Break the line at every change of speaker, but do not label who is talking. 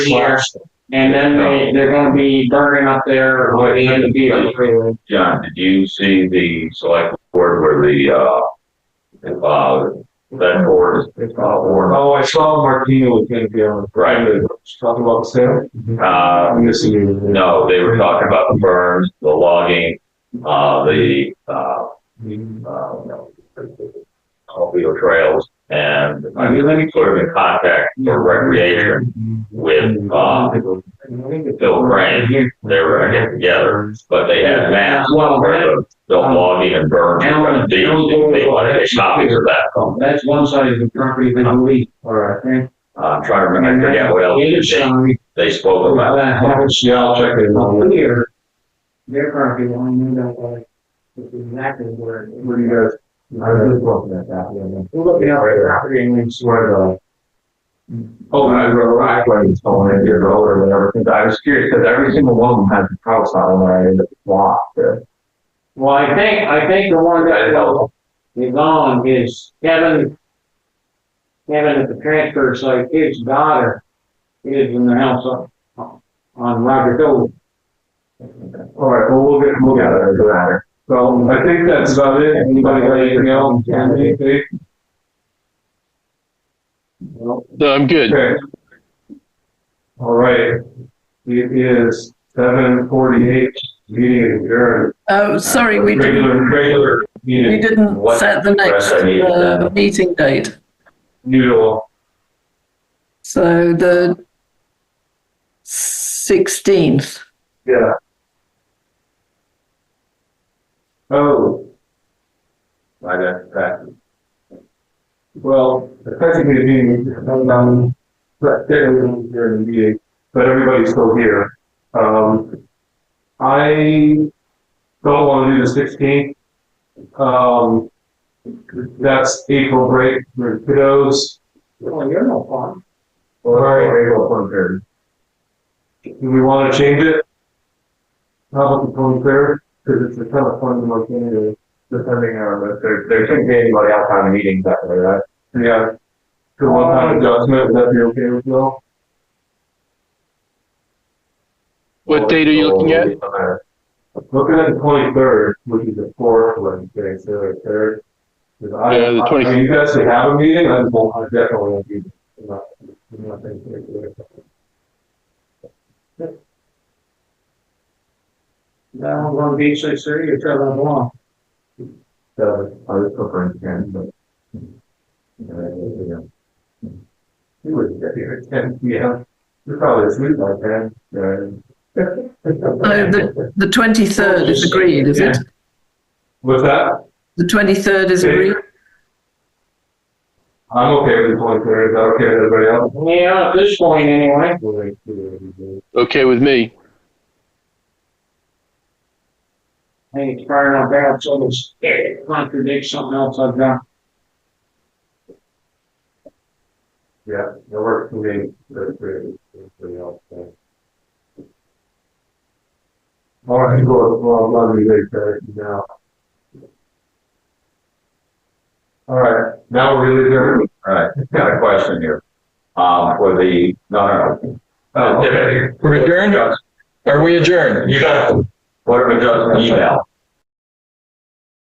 year,
slash,
and then they, they're gonna be burning up there with the vehicle freeway.
John, did you see the select board where the, uh, uh, that board is,
It's
uh,
all-
board,
oh, I saw Martino was gonna be on,
right?
She's talking about the sale.
Uh,
I'm missing you.
no, they were talking about the burns, the logging, uh, the, uh, uh, Mobile trails and I mean, let me sort of in contact for recreation with, uh, Bill Crane. They were gonna get together, but they had maps where the, the logging and burn, and they, they wanted to copy of that.
That's one side of the property that we,
All right.
okay?
Uh, I'm trying to remember, I forget what else
The other
they,
side,
they spoke about.
that house
Yeah, I'll check it
up
out.
here, their property line, they don't like, it's exactly where.
What do you guys? I was looking at that, yeah.
We're looking at the property and we
It's where the. Oh, I remember I was going in here or whatever, because I was curious, because every single one of them has a house on there, and it's locked.
Well, I think, I think the one that well, is on is Kevin. Kevin at the transfer site, his daughter is in the house on, on Roger Cove.
All right, well, we'll get, we'll get it, doesn't matter. So I think that's about it. Anybody got anything else? Andy, Dave? No?
No, I'm good.
Okay. All right. It is seven forty-eight, meeting adjourned.
Oh, sorry, we didn't,
Regular, regular
we
meeting,
didn't
What
set the next
press I needed
uh,
then?
meeting date.
usual.
So the 16th.
Yeah. Oh,
I got that.
well, technically the meeting, um, but technically you're in the meeting, but everybody's still here. Um, I don't want to do the sixteenth. Um, that's April break for kiddos.
Well, Oh, you're no fun.
Or April twenty-third. Do we want to change it? How about the twenty-third? Because it's a kind of fun month anyway. Depending on, there, there shouldn't be anybody else on the meetings that way, right? Yeah. The
Um,
one-time adjustment, would that be okay with you all? Oh,
What date are you looking at?
Looking at the twenty-third, which is the fourth Wednesday, so the third. 'Cause I-
Yeah, the
I-
20
I mean, you guys should have a meeting, I won't, I definitely won't be. I'm not- I'm not thinking of it.
No, I'm gonna be so serious, you're traveling along.
So, I was preferring ten, but. You would get here at ten, yeah, you're probably asleep by ten,
Uh,
No,
right?
Oh, the, the 23rd is agreed, is it?
With that,
The 23rd is agreed?
I'm okay with the twenty-third, is that okay with everybody else?
Yeah, at this point anyway.
Okay with me.
I think it's far enough out, so it's, it contradicts something else I've done.
Yeah, that works for me, that's great, everybody else. so. All right, well, well, I'm glad we did that now. All right, now we're really there.
All right, got a question here. Um, for the, no, no, no.
Oh,
Uh,
We're adjourned? Are we adjourned?
You got, what of adjustment email?